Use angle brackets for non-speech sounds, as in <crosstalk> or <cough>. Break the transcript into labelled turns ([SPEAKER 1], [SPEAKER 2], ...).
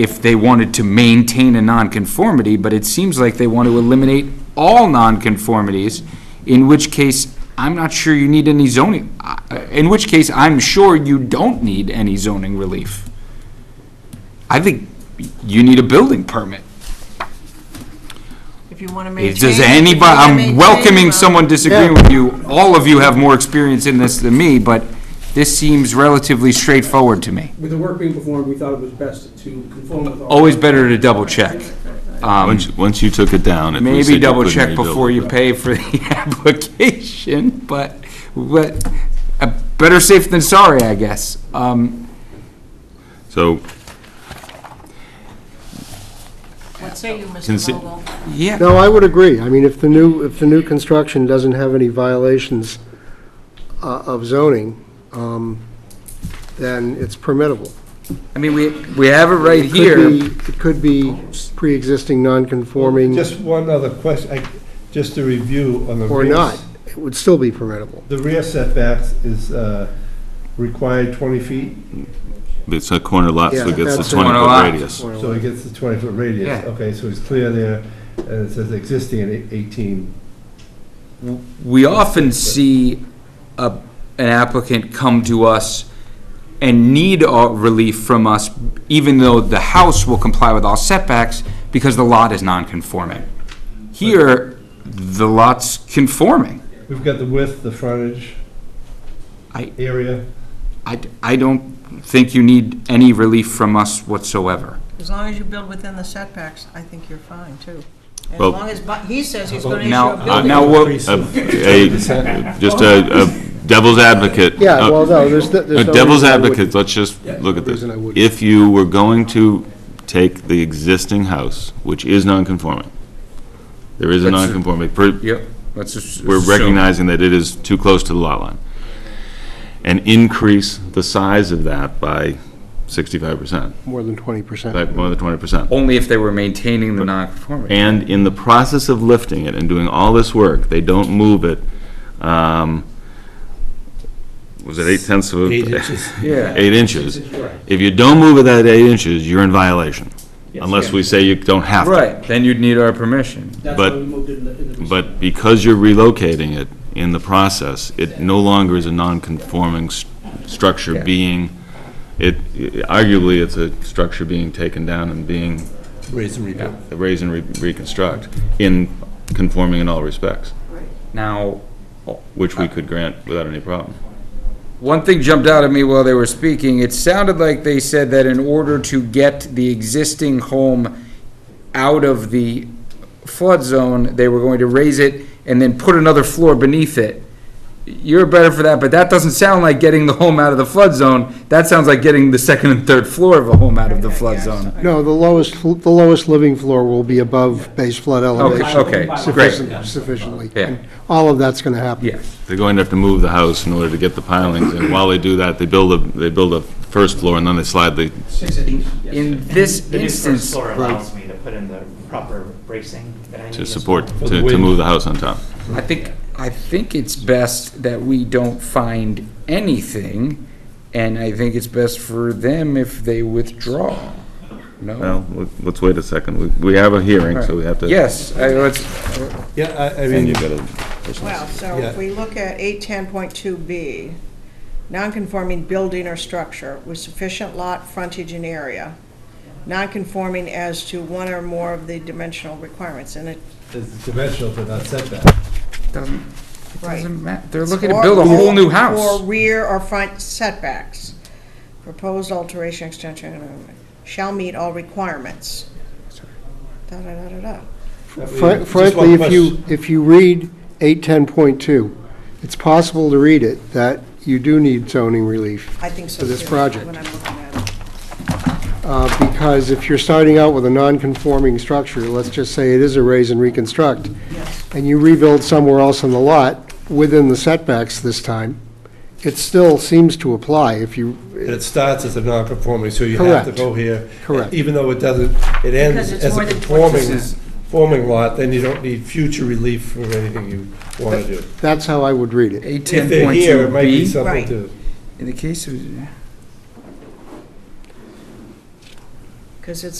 [SPEAKER 1] if they wanted to maintain a nonconformity, but it seems like they want to eliminate all nonconformities, in which case, I'm not sure you need any zoning, I- in which case, I'm sure you don't need any zoning relief. I think you need a building permit.
[SPEAKER 2] If you want to maintain.
[SPEAKER 1] Does
[SPEAKER 2] if you
[SPEAKER 1] anybody,
[SPEAKER 2] wanna maintain,
[SPEAKER 1] I'm welcoming
[SPEAKER 2] uh,
[SPEAKER 1] someone disagreeing with you. All of you have more experience in this than me, but this seems relatively straightforward to me.
[SPEAKER 3] With the work being performed, we thought it was best to conform with. all-
[SPEAKER 1] Always better to double check. Um,
[SPEAKER 4] Once, once you took it down, if we said
[SPEAKER 1] Maybe
[SPEAKER 4] you
[SPEAKER 1] double
[SPEAKER 4] couldn't
[SPEAKER 1] check
[SPEAKER 4] rebuild
[SPEAKER 1] before
[SPEAKER 4] it,
[SPEAKER 1] you pay for the <laughs> application, but, but, uh, better safe than sorry, I guess. Um,
[SPEAKER 4] So,
[SPEAKER 2] What say you, Mr.
[SPEAKER 4] Consi-
[SPEAKER 2] Vogel?
[SPEAKER 1] Yeah,
[SPEAKER 5] No, I would agree. I mean, if the new, if the new construction doesn't have any violations uh, of zoning, um, then it's permittable.
[SPEAKER 1] I mean, we, we have it right
[SPEAKER 5] It could
[SPEAKER 1] here.
[SPEAKER 5] be- It could be pre-existing non-conforming
[SPEAKER 6] Just one other question, I- just to review on the.
[SPEAKER 5] or
[SPEAKER 6] rear-
[SPEAKER 5] not. It would still be permittable.
[SPEAKER 6] The rear setbacks is uh, required 20 feet,
[SPEAKER 4] it's a corner lot, so
[SPEAKER 5] Yeah,
[SPEAKER 4] it gets a
[SPEAKER 5] that's it.
[SPEAKER 1] Corner lot.
[SPEAKER 4] 20-foot radius.
[SPEAKER 6] so it gets the 20-foot radius.
[SPEAKER 1] Yeah.
[SPEAKER 6] Okay, so it's clear there, and it says existing at eight- 18.
[SPEAKER 1] We often see a, an applicant come to us and need our relief from us, even though the house will comply with all setbacks, because the lot is non-conforming. Here, the lot's conforming.
[SPEAKER 6] We've got the width, the frontage,
[SPEAKER 1] I-
[SPEAKER 6] area.
[SPEAKER 1] I, I don't think you need any relief from us whatsoever.
[SPEAKER 2] As long as you build within the setbacks, I think you're fine, too. As
[SPEAKER 4] Well-
[SPEAKER 2] long as, but he says he's going to issue
[SPEAKER 1] Now-
[SPEAKER 2] a building.
[SPEAKER 1] now what-
[SPEAKER 4] A- a- Just a a devil's advocate.
[SPEAKER 5] Yeah,
[SPEAKER 4] Uh,
[SPEAKER 5] well, no, there's, no-
[SPEAKER 4] A
[SPEAKER 5] there's no
[SPEAKER 4] devil's
[SPEAKER 5] reason I wouldn't.
[SPEAKER 4] advocate, let's just look at this.
[SPEAKER 5] reason I wouldn't.
[SPEAKER 4] If you were going to take the existing house, which is non-conforming, there is a
[SPEAKER 1] That's a-
[SPEAKER 4] non-conforming, per-
[SPEAKER 1] Yep, let's just.
[SPEAKER 4] we're recognizing that it is too close to the lot line, and increase the size of that by 65%,
[SPEAKER 5] More than 20%.
[SPEAKER 4] like more than 20%.
[SPEAKER 1] Only if they were maintaining the non-conformity.
[SPEAKER 4] And in the process of lifting it and doing all this work, they don't move it, um, was it eight tenths of? Eight inches.
[SPEAKER 1] Yeah.
[SPEAKER 4] <laughs> Eight inches.
[SPEAKER 3] Right.
[SPEAKER 4] If you don't move it at eight inches, you're in violation, unless we say you don't have to.
[SPEAKER 1] Right, then you'd need our permission.
[SPEAKER 3] That's why
[SPEAKER 4] but-
[SPEAKER 3] we moved it in the. in the-
[SPEAKER 4] But because you're relocating it in the process, it no longer is a non-conforming s- structure being, it, arguably, it's a structure being taken down and being
[SPEAKER 6] Raise and rebuild.
[SPEAKER 4] raised and re- reconstruct in conforming in all respects.
[SPEAKER 1] Now,
[SPEAKER 4] which we could grant without any problem.
[SPEAKER 1] one thing jumped out at me while they were speaking. It sounded like they said that in order to get the existing home out of the flood zone, they were going to raise it and then put another floor beneath it. You're better for that, but that doesn't sound like getting the home out of the flood zone. That sounds like getting the second and third floor of a home out of the flood zone.
[SPEAKER 5] No, the lowest, fl- the lowest living floor will be above base flood elevation.
[SPEAKER 1] okay, great.
[SPEAKER 5] sufficient- Sufficiently.
[SPEAKER 1] Yeah.
[SPEAKER 5] And All of that's going to happen.
[SPEAKER 1] Yeah.
[SPEAKER 4] They're going to have to move the house in order to get the pilings, and while they do that, they build a, they build a first floor, and then they slide the,
[SPEAKER 1] In this
[SPEAKER 7] The new first
[SPEAKER 1] instance,
[SPEAKER 7] floor allows me to put in the proper bracing that I need.
[SPEAKER 4] to
[SPEAKER 7] as
[SPEAKER 4] support,
[SPEAKER 7] well.
[SPEAKER 4] to, to move the house on top.
[SPEAKER 1] I think, I think it's best that we don't find anything, and I think it's best for them if they withdraw. No?
[SPEAKER 4] Well, let- let's wait a second, we, we have a hearing, so we have to. uh,
[SPEAKER 1] Yes, I, let's,
[SPEAKER 6] Yeah, I, I
[SPEAKER 4] And
[SPEAKER 6] mean,
[SPEAKER 4] you gotta.
[SPEAKER 2] Well, so if
[SPEAKER 6] Yeah.
[SPEAKER 2] we look at 810.2B, nonconforming building or structure with sufficient lot frontage and area, nonconforming as to one or more of the dimensional requirements, and it,
[SPEAKER 6] it's dimensional, but not setback.
[SPEAKER 1] doesn't,
[SPEAKER 2] right.
[SPEAKER 1] doesn't matter, they're looking to build a whole new house.
[SPEAKER 2] Or rear or front setbacks. Proposed alteration, extension, uh, shall meet all requirements. Da-da-da-da-da.
[SPEAKER 5] Fra- Frankly, if you, if you read 810.2, it's possible to read it that you do need zoning relief,
[SPEAKER 2] I think so.
[SPEAKER 5] For this
[SPEAKER 2] too,
[SPEAKER 5] project.
[SPEAKER 2] When I'm looking at it.
[SPEAKER 5] uh, because if you're starting out with a non-conforming structure, let's just say it is a raise and reconstruct,
[SPEAKER 2] Yes.
[SPEAKER 5] and you rebuild somewhere else on the lot, within the setbacks this time, it still seems to apply if you,
[SPEAKER 6] And it starts as a non-conforming, so you have to
[SPEAKER 5] Correct.
[SPEAKER 6] go here.
[SPEAKER 5] Correct.
[SPEAKER 6] Even though it doesn't, it ends
[SPEAKER 2] Because it's
[SPEAKER 6] as
[SPEAKER 2] more
[SPEAKER 6] a
[SPEAKER 2] than what
[SPEAKER 6] conforming,
[SPEAKER 1] this is.
[SPEAKER 6] conforming lot, then you don't need future relief for anything you want to do.
[SPEAKER 5] that's how I would read it.
[SPEAKER 1] Eight
[SPEAKER 6] If
[SPEAKER 1] ten
[SPEAKER 6] they're
[SPEAKER 1] point
[SPEAKER 6] here,
[SPEAKER 1] two
[SPEAKER 6] it might be
[SPEAKER 1] B,
[SPEAKER 6] something
[SPEAKER 2] Right.
[SPEAKER 6] to,
[SPEAKER 1] in the case of,
[SPEAKER 2] because it's